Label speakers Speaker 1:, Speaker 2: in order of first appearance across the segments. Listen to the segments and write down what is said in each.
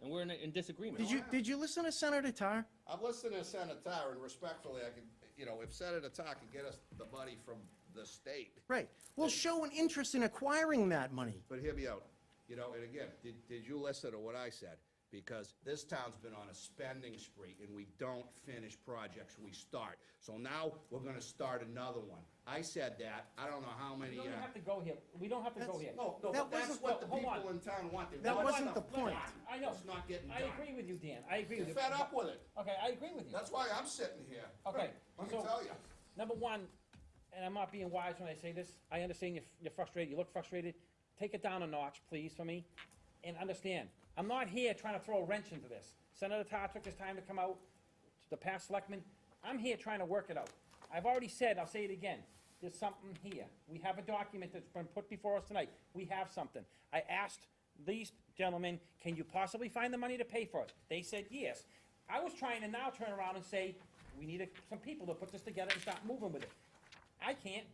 Speaker 1: we're in, in disagreement.
Speaker 2: Did you, did you listen to Senator Tar?
Speaker 3: I'm listening to Senator Tarr, and respectfully, I can, you know, if Senator Tarr can get us the money from the state,
Speaker 2: Right. Well, show an interest in acquiring that money.
Speaker 3: but hear me out. You know, and again, did, did you listen to what I said? Because this town's been on a spending spree, and we don't finish projects we start. So now, we're gonna start another one. I said that, I don't know how many,
Speaker 1: We
Speaker 3: uh.
Speaker 1: don't have to go here, we don't have to go here.
Speaker 3: No, no,
Speaker 2: That
Speaker 3: but that's
Speaker 2: wasn't
Speaker 3: what
Speaker 1: the-
Speaker 3: the
Speaker 1: hold on.
Speaker 3: people in town want. They
Speaker 2: That
Speaker 3: want
Speaker 2: wasn't
Speaker 3: stuff.
Speaker 2: the point.
Speaker 1: I know.
Speaker 3: It's not getting
Speaker 1: I
Speaker 3: done.
Speaker 1: agree with you, Dan, I agree with you.
Speaker 3: You're fed up with it.
Speaker 1: Okay, I agree with you.
Speaker 3: That's why I'm sitting here.
Speaker 1: Okay,
Speaker 3: Let me
Speaker 1: so-
Speaker 3: tell you.
Speaker 1: Number one, and I'm not being wise when I say this, I understand you're, you're frustrated, you look frustrated. Take it down a notch, please, for me, and understand, I'm not here trying to throw a wrench into this. Senator Tar took his time to come out, the past selectman, I'm here trying to work it out. I've already said, I'll say it again, there's something here. We have a document that's been put before us tonight. We have something. I asked these gentlemen, can you possibly find the money to pay for it? They said yes. I was trying to now turn around and say, we need a- some people to put this together and start moving with it. I can't.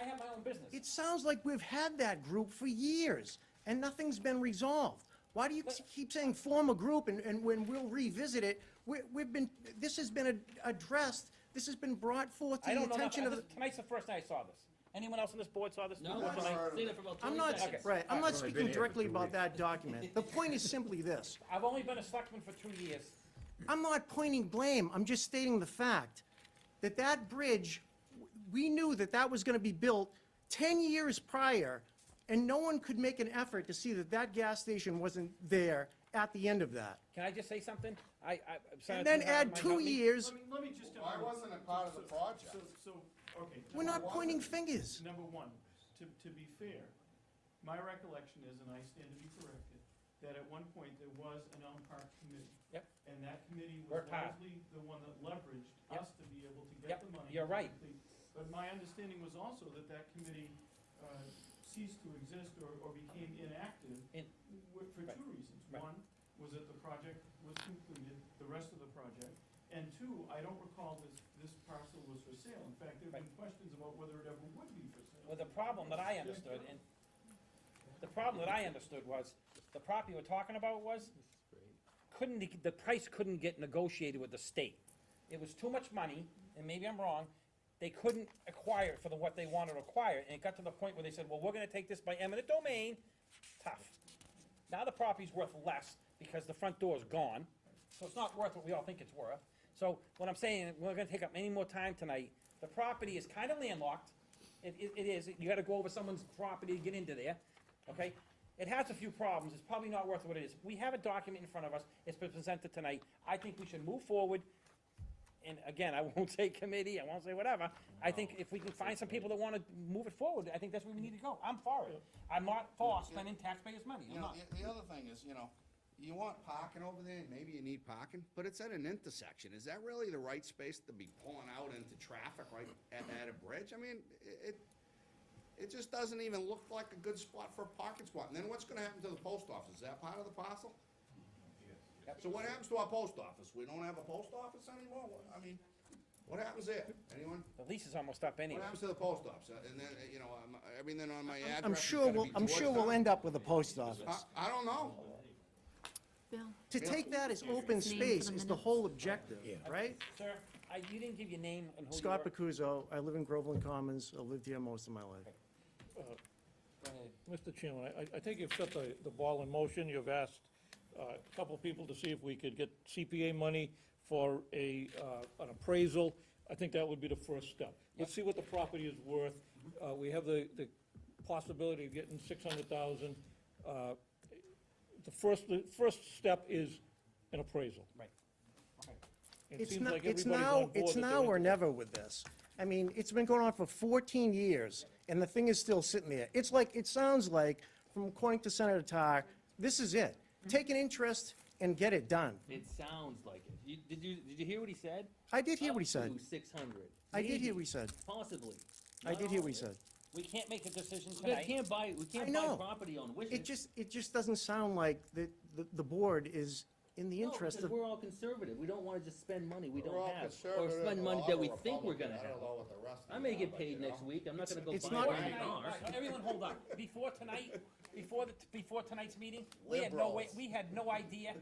Speaker 1: I have my own business.
Speaker 2: It sounds like we've had that group for years, and nothing's been resolved. Why do you keep saying form a group, and, and when we'll revisit it, we, we've been, this has been ad- addressed, this has been brought forth to
Speaker 1: I
Speaker 2: the
Speaker 1: don't know,
Speaker 2: attention
Speaker 1: nothing.
Speaker 2: of the...
Speaker 1: This- tonight's the first night I saw this. Anyone else on this board saw this?
Speaker 4: No,
Speaker 1: before
Speaker 3: that's
Speaker 4: I've
Speaker 1: tonight?
Speaker 3: all
Speaker 4: seen it for about
Speaker 2: I'm
Speaker 4: 20
Speaker 2: not,
Speaker 4: seconds.
Speaker 2: right, I'm not
Speaker 5: I've only been
Speaker 2: speaking
Speaker 5: here for
Speaker 2: directly
Speaker 5: two
Speaker 2: about
Speaker 5: weeks.
Speaker 2: that document. The point is simply this.
Speaker 1: I've only been a selectman for two years.
Speaker 2: I'm not pointing blame, I'm just stating the fact that that bridge, w- we knew that that was gonna be built 10 years prior, and no one could make an effort to see that that gas station wasn't there at the end of that.
Speaker 1: Can I just say something? I, I.
Speaker 2: And
Speaker 1: Senator
Speaker 2: then
Speaker 1: Tar
Speaker 2: add
Speaker 1: might
Speaker 2: two
Speaker 1: help me.
Speaker 2: years,
Speaker 4: Let me, let me just.
Speaker 3: Why wasn't it part of the
Speaker 4: So-
Speaker 3: project?
Speaker 4: So, so, okay.
Speaker 2: we're
Speaker 4: number
Speaker 2: not
Speaker 4: one-
Speaker 2: pointing fingers.
Speaker 4: Number one, to, to be fair, my recollection is, and I stand to be corrected, that at one point there was an Elm Park committee.
Speaker 1: Yep.
Speaker 4: And that committee was
Speaker 1: Worked hard.
Speaker 4: largely the one that leveraged
Speaker 1: Yep.
Speaker 4: us to be able to
Speaker 1: Yep,
Speaker 4: get the money.
Speaker 1: you're right.
Speaker 4: quickly. But my understanding was also that that committee uh, ceased to exist or, or became inactive
Speaker 1: In-
Speaker 4: w- for
Speaker 1: Right.
Speaker 4: two reasons.
Speaker 1: Right.
Speaker 4: One, was that the project was concluded, the rest of the project, and two, I don't recall this, this parcel was for sale. In fact, there have been questions about whether it ever would be for sale.
Speaker 1: Well, the problem that I understood, and the problem that I understood was, the property we're talking about was, couldn't, the price couldn't get negotiated with the state. It was too much money, and maybe I'm wrong, they couldn't acquire it for the, what they wanted to acquire, and it got to the point where they said, well, we're gonna take this by eminent domain, tough. Now the property's worth less because the front door is gone, so it's not worth what we all think it's worth. So what I'm saying, we're gonna take up any more time tonight. The property is kinda landlocked. It, it, it is, you gotta go over someone's property to get into there, okay? It has a few problems, it's probably not worth what it is. We have a document in front of us, it's been presented tonight. I think we should move forward. And again, I won't say committee, I won't say whatever. I think if we can find some people that wanna move it forward, I think that's where we need to go. I'm for it. I'm not for spending taxpayers' money,
Speaker 3: You
Speaker 1: I'm
Speaker 3: know,
Speaker 1: not.
Speaker 3: the, the other thing is, you know, you want parking over there, maybe you need parking, but it's at an intersection. Is that really the right space to be pulling out into traffic right at, at a bridge? I mean, i- it, it just doesn't even look like a good spot for a parking spot. And then what's gonna happen to the post office? Is that part of the parcel? So what happens to our post office? We don't have a post office anymore? What- I mean, what happens there? Anyone?
Speaker 1: The lease is almost up anyway.
Speaker 3: What happens to the post office? Uh, And then, uh, you know, um, everything on my address
Speaker 2: I'm
Speaker 3: is
Speaker 2: sure
Speaker 3: gonna
Speaker 2: we'll,
Speaker 3: be
Speaker 2: I'm sure we'll
Speaker 3: Georgetown?
Speaker 2: end up with a post office.
Speaker 3: I, I don't know.
Speaker 6: Bill,
Speaker 2: To take that as open
Speaker 6: Name for the
Speaker 2: space is the
Speaker 6: minutes.
Speaker 2: whole objective, right?
Speaker 1: Sir, I, you didn't give your name and who you
Speaker 2: Scott
Speaker 1: were.
Speaker 2: Pacuzzo, I live in Groveland Commons, I lived here most of my life.
Speaker 1: Go ahead.
Speaker 7: Mr. Chairman, I- I, I think you've set the, the ball in motion. You've asked uh, a couple of people to see if we could get CPA money for a, uh, an appraisal. I think that would be the first step. Let's see what the property is worth. Uh, We have the, the possibility of getting six hundred thousand. Uh, The first, the first step is an appraisal.
Speaker 1: Right. Okay.
Speaker 7: It
Speaker 2: It's
Speaker 7: seems
Speaker 2: now,
Speaker 7: like
Speaker 2: it's
Speaker 7: everybody's on
Speaker 2: now,
Speaker 7: board
Speaker 2: it's
Speaker 7: that they're
Speaker 2: now or
Speaker 7: interested.
Speaker 2: never with this. I mean, it's been going on for 14 years, and the thing is still sitting there. It's like, it sounds like, from according to Senator Tar, this is it. Take an interest and get it done.
Speaker 4: It sounds like it.
Speaker 1: You, did you, did you hear what he said?
Speaker 2: I did hear what he said.
Speaker 4: Six hundred.
Speaker 2: I did hear what he said.
Speaker 4: Possibly.
Speaker 2: I did hear what he said.
Speaker 1: We can't make a decision
Speaker 4: We
Speaker 1: tonight.
Speaker 4: can't buy, we
Speaker 2: I
Speaker 4: can't
Speaker 2: know.
Speaker 4: buy property on
Speaker 2: It
Speaker 4: wishes.
Speaker 2: just, it just doesn't sound like the, the- the board is in the
Speaker 4: No,
Speaker 2: interest of,
Speaker 4: because We're all conservative. We don't wanna just spend money we
Speaker 3: We're all
Speaker 4: don't have, or
Speaker 3: conservative,
Speaker 4: spend
Speaker 3: we're
Speaker 4: money
Speaker 3: all
Speaker 4: that we think we're
Speaker 3: Republican.
Speaker 4: gonna
Speaker 3: I
Speaker 4: have.
Speaker 3: don't know what the rest of
Speaker 4: I
Speaker 3: you
Speaker 4: may
Speaker 3: are,
Speaker 4: get
Speaker 3: but,
Speaker 4: paid
Speaker 3: you know.
Speaker 4: next week. I'm not gonna go
Speaker 2: it's
Speaker 4: buy
Speaker 2: not-
Speaker 4: one.
Speaker 1: Tonight, right, Everyone hold on. Before tonight, before the, before tonight's meeting, we had no way,
Speaker 3: Liberals.
Speaker 1: we had no idea